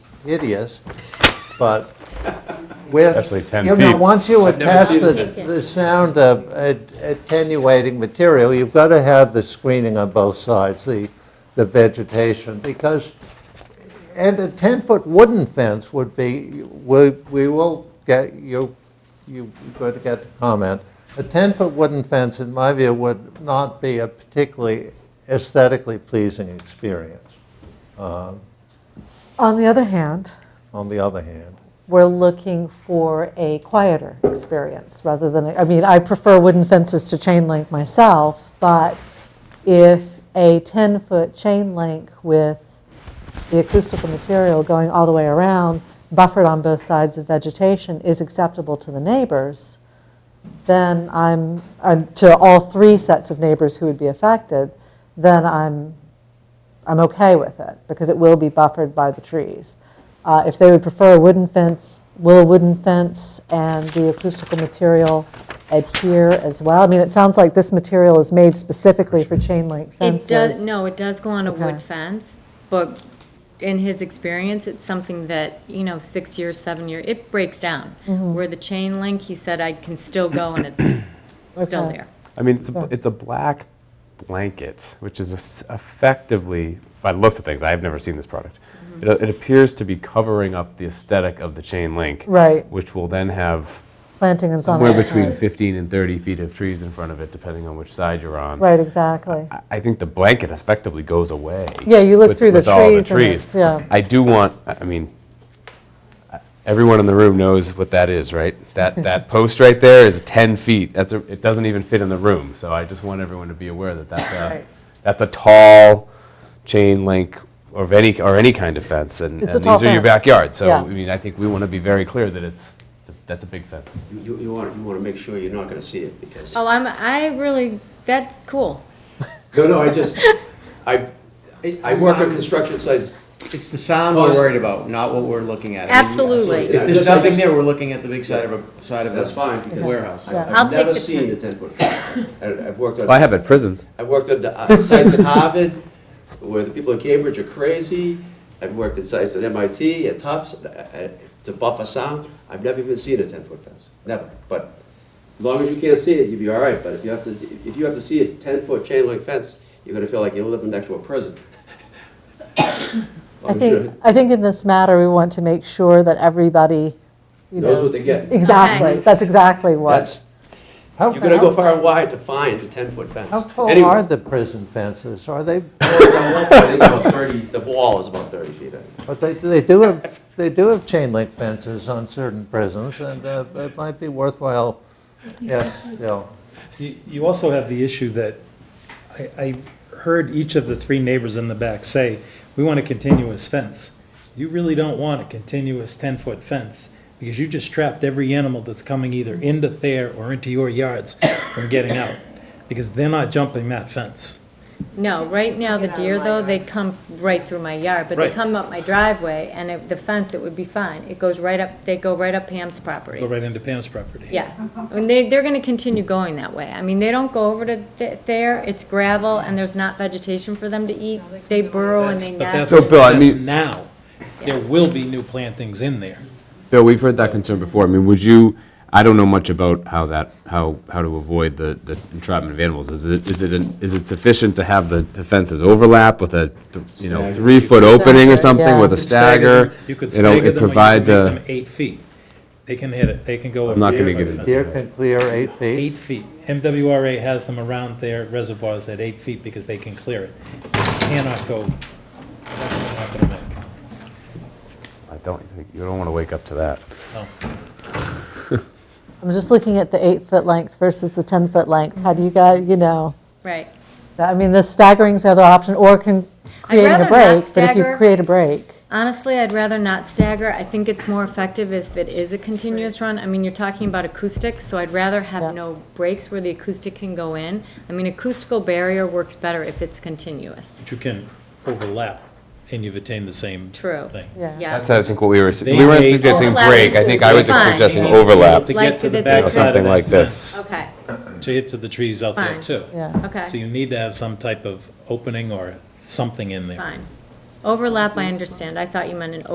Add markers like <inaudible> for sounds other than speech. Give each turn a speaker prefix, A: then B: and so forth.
A: hideous, but with.
B: Especially 10
A: You know,
B: feet.
A: once you
C: I've never
A: attach
C: seen
A: the,
D: it.
A: the sound of at- attenuating material, you've got to have the screening on both sides, the, the vegetation, because, and a 10-foot wooden fence would be, we, we will get, you, you're going to get the comment. A 10-foot wooden fence, in my view, would not be a particularly aesthetically pleasing experience.
E: On the other hand,
A: on the other hand.
E: we're looking for a quieter experience rather than, I mean, I prefer wooden fences to chain link myself, but if a 10-foot chain link with the acoustical material going all the way around, buffered on both sides of vegetation, is acceptable to the neighbors, then I'm, I'm- to all three sets of neighbors who would be affected, then I'm I'm okay with it, because it will be buffered by the trees. Uh, If they would prefer a wooden fence, will a wooden fence and the acoustical material adhere as well? I mean, it sounds like this material is made specifically for chain link
D: It
E: fences.
D: does, no, it does go on a wood
E: Okay.
D: fence, but in his experience, it's something that, you know, six years, seven year, it breaks down.
E: Mm-hmm.
D: Where the chain link, he said, I can still go and it's
E: <clears throat>
D: still
E: Okay.
D: there.
C: I mean, it's a,
E: Sorry.
C: it's a black blanket, which is es- effectively, by the looks of things, I have never seen this product. It, it appears to be covering up the aesthetic of the chain link,
E: Right.
C: Which will then have
E: Planting and
C: somewhere
E: sunlight.
C: between 15 and 30 feet of trees in front of it, depending on which side you're on.
E: Right, exactly.
C: I- I think the blanket effectively goes away.
E: Yeah, you look
C: with-
E: through the
C: with all
E: trees and it's- yeah.
C: I do want. I I mean, I- everyone in the room knows what that is, right?
E: <laughs>
C: That that post right there is 10 feet. That's a, it doesn't even fit in the room. So I just want everyone to be aware that that's a
E: Right.
C: that's a tall chain link of any or any kind of fence, and,
E: It's a
C: and
E: tall
C: these are your
E: fence.
C: backyard. So I
E: Yeah.
C: mean, I think we want to be very clear that it's that's a big fence.
F: You, you want, you want to make sure you're not going to see it because,
D: Oh, I'm, I really, that's cool.
F: no, no, I just, I, I work on construction sites.
G: It's the sound we're worried about, not what we're looking at. I mean,
D: Absolutely.
G: If there's nothing there, we're looking at the big side of a, side of a.
F: That's fine because.
G: Warehouse.
F: I-
D: I'll
F: I've
D: take
F: never
D: the
F: seen
D: ten.
F: a ten-foot. I've worked on.
C: Well, I have at prisons.
F: I've worked at the, uh, sites at Harvard, where the people at Cambridge are crazy. I've worked at sites at MIT, at Tufts, uh, uh, to buffer sound. I've never even seen a ten-foot fence, never. But as long as you can't see it, you'll be all right. But if you have to, if you have to see a ten-foot chain link fence, you're gonna feel like you're living next to a prison.
E: I think, I think in this matter, we want to make sure that everybody, you know.
F: Knows what they get.
E: Exactly,
D: Okay.
E: that's exactly what.
F: That's,
A: How
F: you're gonna go
A: how-
F: far and wide to find a ten-foot fence.
A: how tall
F: Anyway.
A: are
F: <laughs>
A: the prison fences? Are they,
F: I think about thirty, the wall is about thirty feet. I think.
A: but they, they do have, they do have chain link fences on certain prisons, and uh, it might be worthwhile, yes, Bill.
H: You you also have the issue that I, I heard each of the three neighbors in the back say, we want a continuous fence. You really don't want a continuous ten-foot fence because you just trapped every animal that's coming either into there or into your yards from getting out because they're not jumping that fence.
D: No, right now, the deer, though, they come right through my yard, but they
H: Right.
D: come up my driveway, and if the fence, it would be fine. It goes right up, they go right up Pam's property.
H: Go right into Pam's property.
D: Yeah, I mean, they, they're gonna continue going that way. I mean, they don't go over to th- there, it's gravel, and there's not vegetation for them to eat. They burrow and
H: That's,
D: they
H: but
D: nest.
H: that's,
C: So, Bill, I
H: that's
C: mean-
H: now. There will be new plantings in there.
C: Bill, we've heard that concern before. I mean, would you, I don't know much about how that, how, how to avoid the, the entrapment of animals. Is it, is it, an- is it sufficient to have the the fences overlap with a, you know, three-foot opening or something with a
H: You could stagger
C: stagger?
H: them- You could
C: You know,
H: stagger them, or
C: it
H: you could
C: provides
H: make
C: a,
H: them eight feet. They can hit it, they can go.
C: I'm not
H: over
C: gonna
H: the
C: give it-
H: fence.
A: Deer can clear eight feet.
H: Eight feet. MWRA has them around their reservoirs at eight feet because they can clear it. They Cannot go, that's what they're not gonna make.
C: I don't think, you don't want to wake up to that.
E: I'm just looking at the eight-foot length versus the 10-foot length. How do you guys, you know?
D: Right.
E: I mean, the staggering's the other option, or can, creating
D: rather
E: a
D: not
E: break, but if you
D: stagger.
E: create a break.
D: Honestly, I'd rather not stagger. I think it's more effective if it is a continuous run. I mean, you're talking about acoustics, so I'd rather
E: Yeah.
D: have no breaks where the acoustic can go in. I mean, acoustical barrier works better if it's continuous.
H: But you can overlap and you've attained the same
D: True.
H: thing.
E: Yeah.
D: Yeah.
C: That's, I think, what we were,
H: They
C: we weren't
H: may-
C: suggesting
D: Overlap
C: break. I think I was
D: is fine.
C: suggesting
H: You have to be able
C: overlap.
H: To
D: Like
H: get to
D: to
H: the
D: the big
H: backside
C: Something
H: of that
C: like this.
H: fence.
D: Okay,
H: To get to the trees out there
D: Fine.
H: too.
E: Yeah.
H: So
D: okay,
H: you need to have some type of opening or something in there.
D: fine. Overlap, I understand. I thought you meant an